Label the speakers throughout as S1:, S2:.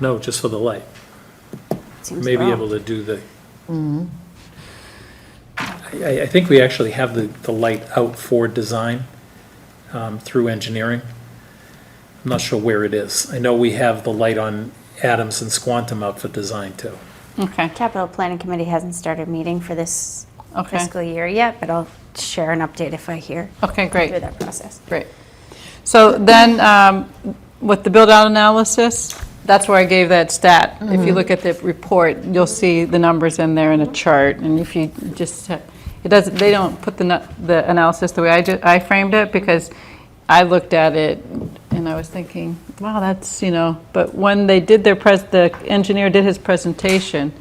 S1: No, just for the light.
S2: Seems
S1: Maybe
S2: wrong.
S1: able to do the.
S3: Mm-hmm.
S1: I, I think we actually have the, the light out for design um, through engineering. I'm not sure where it is. I know we have the light on Adams and Squantum out for design too.
S3: Okay,
S2: Capital Planning Committee hasn't started meeting for this
S3: Okay.
S2: fiscal year yet, but I'll share an update if I hear
S3: okay,
S2: through
S3: great,
S2: that process.
S3: great. So then, um, with the build-out analysis, that's where I gave that stat. If you look at the report, you'll see the numbers in there in a chart, and if you just, it doesn't, they don't put the, nu- the analysis the way I did, I framed it, because I looked at it, and I was thinking, wow, that's, you know, but when they did their pres, the engineer did his presentation,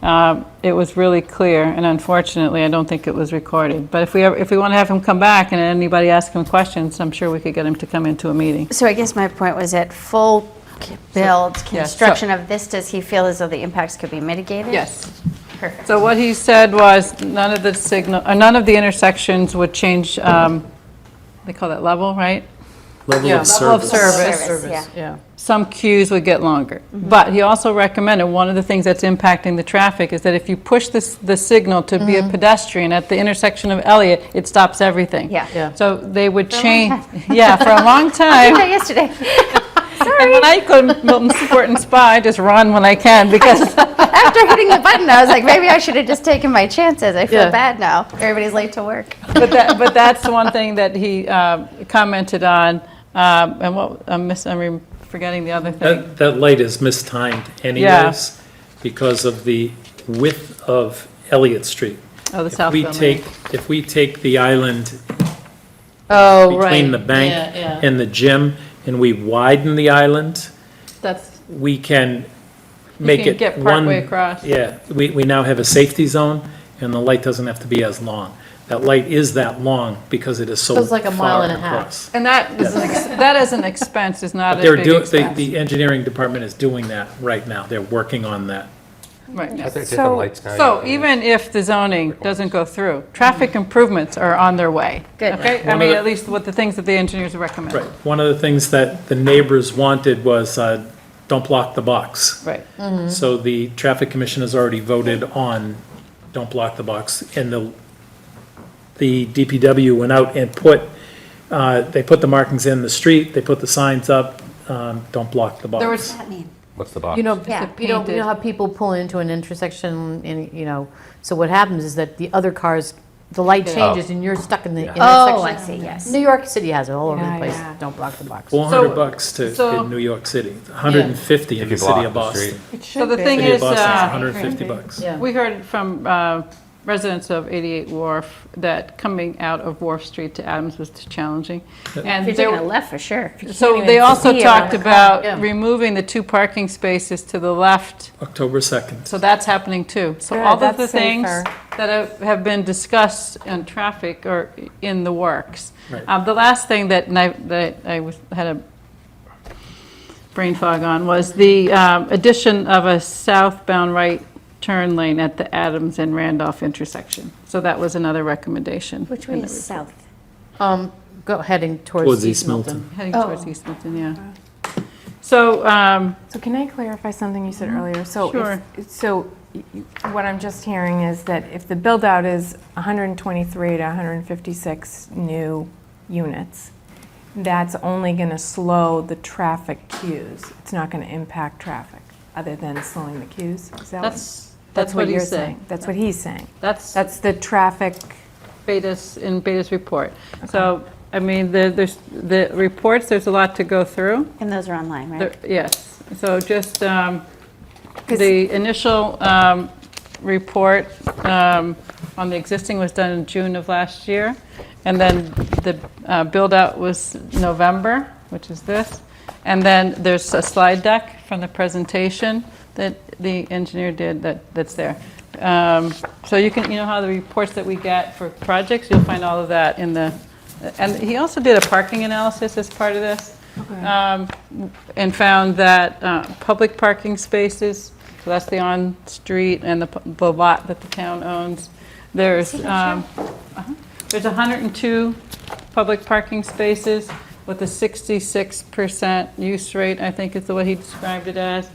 S3: Um, It was really clear, and unfortunately, I don't think it was recorded. But if we, ever- if we want to have him come back and anybody ask him questions, I'm sure we could get him to come into a meeting.
S2: So I guess my point was at full c- build,
S3: yeah, so-
S2: construction of this, does he feel as though the impacts could be mitigated?
S3: Yes.
S2: Perfect.
S3: So what he said was, none of the signal, uh, none of the intersections would change, um, they call that level, right?
S1: Level
S3: Yeah,
S1: of service.
S2: service. Service, yeah. Mm-hmm.
S3: Some queues would get longer. But he also recommended, one of the things that's impacting the traffic is that if you push this, the signal to be
S2: Mm-hmm.
S3: a pedestrian at the intersection of Elliott, it stops everything.
S2: Yeah. Yeah.
S3: So they would
S2: a long
S3: change, yeah, for a long
S2: I
S3: time.
S2: did that yesterday.
S3: And
S2: Sorry,
S3: when I go to Milton Sport and Spa, I just run when I can because,
S2: after hitting the button, I was like, maybe I should have just taken my chances. I
S3: Yeah.
S2: feel bad now. Everybody's late to work.
S3: but that, but that's one thing that he uh, commented on. um, And what, I'm miss, I'm re- forgetting the other thing.
S1: That, that light is mistimed anyways because of the width of Elliott Street.
S3: Oh,
S1: If
S3: the south
S1: we
S3: building.
S1: take If we take the island
S3: Oh, right.
S1: between the bank
S3: Yeah, yeah.
S1: and the gym, and we widen the island,
S3: That's,
S1: we can make
S3: can
S1: it
S3: get
S1: one.
S3: partway across.
S1: Yeah, we, we now have a safety zone, and the light doesn't have to be as long. That light is that long because it is so
S4: So it's like a mile
S1: far
S4: and a half.
S1: across.
S3: and that is, an ex- that is an expense, it's not a
S1: They're
S3: big
S1: doing,
S3: expense.
S1: the, the engineering department is doing that right now. They're working on that.
S3: Right.
S5: I think
S2: So-
S5: different lights now.
S3: So even if the zoning doesn't go through, traffic improvements are on their way.
S2: Mm-hmm. Good.
S3: Okay,
S1: One
S3: I
S1: of
S3: mean,
S1: the-
S3: at least what the things that the engineers recommend.
S1: Right. One of the things that the neighbors wanted was, uh, don't block the box.
S3: Right.
S1: So the traffic commission has already voted on, don't block the box, and the, the DPW went out and put, uh, they put the markings in the street, they put the signs up, um, don't block the
S3: There
S1: box.
S3: was,
S2: That mean?
S5: What's the box?
S4: You know,
S2: Yeah.
S4: you know, you
S3: Painted.
S4: know how people pull into an intersection and, you know, so what happens is that the other cars, the light changes and you're stuck in the intersection.
S2: Oh, I see, yes.
S4: New York City has it all over the
S3: Yeah,
S4: place.
S3: yeah.
S4: Don't block the box.
S1: Four hundred
S3: So-
S1: bucks to,
S3: so-
S1: in New York City, hundred and fifty in
S5: If
S1: the
S5: you
S1: city
S5: block
S1: of
S5: the street.
S1: Boston.
S3: so the thing
S1: City of
S3: is,
S1: Boston's
S3: uh,
S1: hundred and fifty bucks.
S3: we heard from uh, residents of 88 Wharf that coming out of Wharf Street to Adams was challenging. And
S2: You're
S3: there-
S2: taking a left for sure.
S3: So they also
S2: see around
S3: talked
S2: the
S4: yeah.
S3: about removing the two parking spaces to the left,
S1: October second.
S3: so that's happening too. So
S6: Good,
S3: all of the
S6: that's
S3: things
S6: safer.
S3: that have- have been discussed in traffic are in the works.
S1: Right.
S3: Um, The last thing that, and I- that I was, had a brain fog on was the um, addition of a southbound right turn lane at the Adams and Randolph intersection. So that was another recommendation.
S2: Which way is south?
S4: Um, go heading towards
S1: Towards
S4: East
S1: East
S4: Milton.
S1: Milton.
S3: Heading towards East Milton, yeah. So, um,
S6: So can I clarify something you said earlier? So if-
S3: Mm-hmm. Sure.
S6: So y- y- what I'm just hearing is that if the build-out is 123 to 156 new units, that's only going to slow the traffic queues. It's not going to impact traffic, other than slowing the queues? Is that what-
S3: That's, that's what
S6: you're
S3: he's saying.
S6: That's what he's saying.
S3: That's
S6: That's the traffic,
S3: Beta's, in Beta's report. So, I mean, the, there's, the reports, there's a lot to go through.
S2: And those are online, right?
S3: There- Yes, so just, um,
S6: 'Cause-
S3: the initial um, report um, on the existing was done in June of last year, and then the uh, build-out was November, which is this, and then there's a slide deck from the presentation that the engineer did that that's there. Um, So you can, you know how the reports that we get for projects, you'll find all of that in the, and he also did a parking analysis as part of this um, and found that uh, public parking spaces, so that's the on-street and the pu- the lot that the town owns, there's, um, uh-huh, there's 102 public parking spaces with a 66% use rate, I think is the way he described it as.